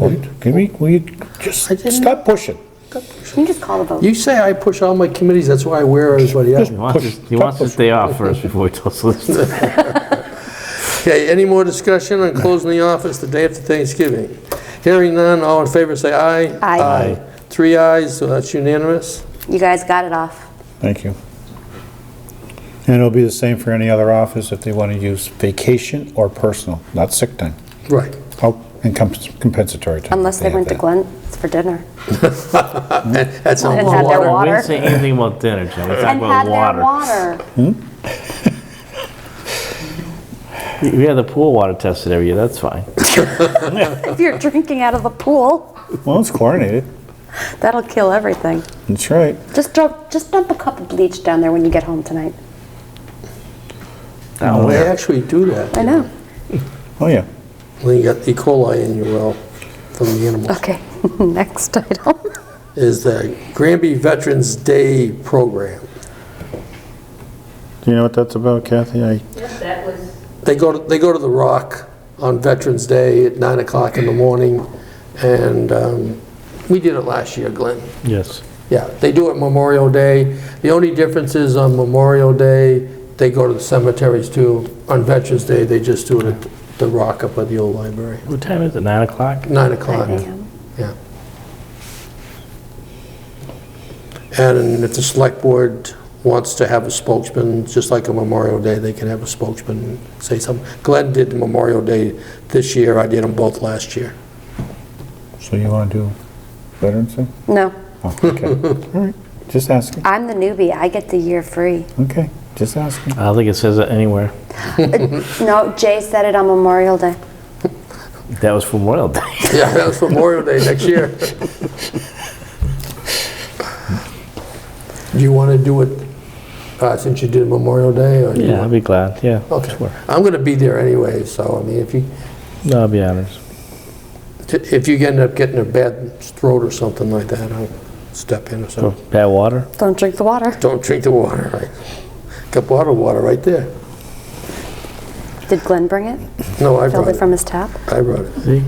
Wait, Can we, will you I just didn't- stop pushing? Can you just call the vote? You say I push all my committees, that's why I wear everybody out. Just He wants, push, his, he stop wants his pushing. day off first before he tells us. Okay, any more discussion on closing the office the day after Thanksgiving? Hearing none, all in favor say aye. Aye. Aye. Three ayes, so that's unanimous. You guys got it off. Thank you. And it'll be the same for any other office if they want to use vacation or personal, not sick time. Right. Oh, and comp- compensatory time. if Unless they have went to that. Glenn's for dinner. That's And all. had their We water. didn't say anything about dinner, Jim. We talked And had about their water. water. We had the pool water tested every year, that's fine. If you're drinking out of the pool, Well, it's chlorinated. that'll kill everything. That's right. Just dump, just dump a cup of bleach down there when you get home tonight. They actually do that. I know. Oh, yeah. When you got E. coli in your well from the animals. Okay, next item. Is the Granby Veterans Day Program. Do you know what that's about, Kathy? I Yep, that was, They go, to- they go to the Rock on Veterans Day at 9 o'clock in the morning, and um, we did it last year, Glenn. Yes. Yeah, they do it Memorial Day. The only difference is on Memorial Day, they go to the cemeteries too. On Veterans Day, they just do it at the Rock up at the old library, What time is it, 9 o'clock? 9 o'clock, yeah. And if the select board wants to have a spokesman, just like a Memorial Day, they can have a spokesman say something. Glenn did Memorial Day this year, I did them both last year. So you want to do Veterans Day? No, Oh, okay. All right. Just asking. I'm the newbie. I get the year free. Okay. Just asking. I don't think it says it anywhere. No, Jay said it on Memorial Day. That was from Royal Day. Yeah, that was Memorial Day next year. Do you want to do it uh, since you did Memorial Day? or do you Yeah, I'll want- be glad, yeah. Okay, sure. I'm going to be there anyway, so, I mean, if you, No, I'll be honest. if you end up getting a bad throat or something like that, I'll step in or For something. bad water? Don't drink the water. Don't drink the water, right? Got bottled water right there. Did Glenn bring it? No, I Filled brought it it, from his tap? I brought it. See?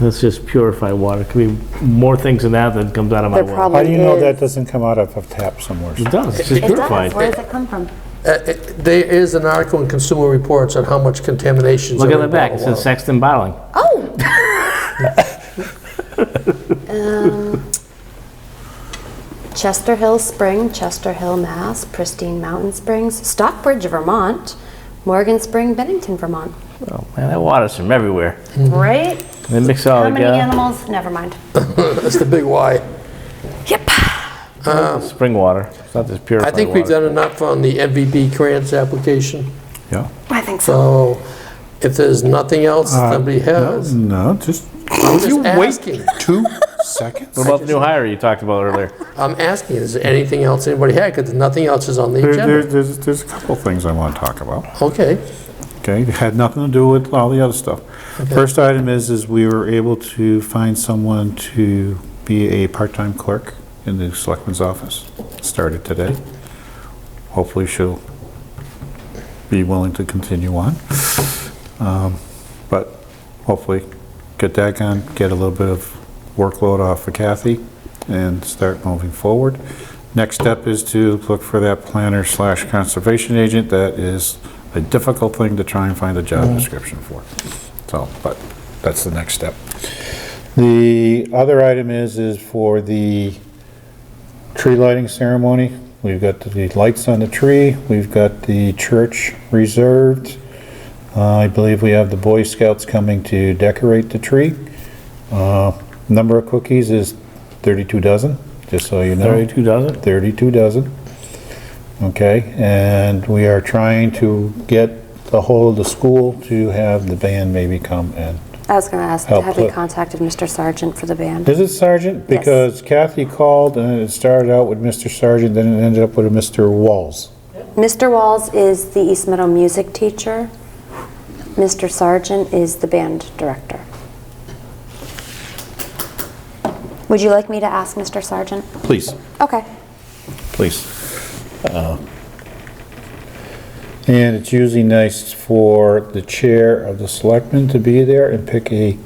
That's just purified water. Could be more things than that that comes out of my There water. probably How do you know that Oh, is. doesn't come out of a tap somewhere? It does, it's just It does. purified. Where does it come from? Uh, it- There is an article in Consumer Reports on how much contaminations Look are at the in back, it bottled says water. Sexton Bottling. Chester Hill Spring, Chester Hill, Mass, Pristine Mountain Springs, Stockbridge, Vermont, Morgan Spring, Bennington, Vermont. Oh, man, that water's from everywhere. Right? They mix it all How many together. animals? Never mind. That's the big why. Spring water. It's not just purified I water. think we've done enough on the MVB grants application, Yeah. I think so. so if there's nothing else Uh, somebody has, Uh, No, just I'm just asking. two seconds. What about the new hire you talked about earlier? I'm asking, is there anything else anybody had? Because nothing else is on the There, there, agenda. there's, there's a couple things I want to talk about. Okay, Okay, it had nothing to do with all the other stuff. First item is, is we were able to find someone to be a part-time clerk in the selectman's office. Started today. Hopefully she'll be willing to continue on. Um, But hopefully get that gone, get a little bit of workload off of Kathy and start moving forward. Next step is to look for that planner slash conservation agent. That is a difficult thing to try and find a job description for. So, but that's the next step. The other item is, is for the tree lighting ceremony. We've got the lights on the tree, we've got the church reserved. Uh, I believe we have the Boy Scouts coming to decorate the tree. Uh, Number of cookies is 32 dozen, just so you know. 32 dozen? 32 dozen. Okay, and we are trying to get the whole of the school to have the band maybe come in. I was going to ask, Help have you clip. contacted Mr. Sargent for the band? Is it Sergeant? Yes. Because Kathy called and it started out with Mr. Sergeant, then it ended up with a Mr. Walls. Mr. Walls is the East Meadow music teacher. Mr. Sargent is the band director. Would you like me to ask Mr. Sargent? Please. Okay. please. And it's usually nice for the chair of the selectmen to be there and pick a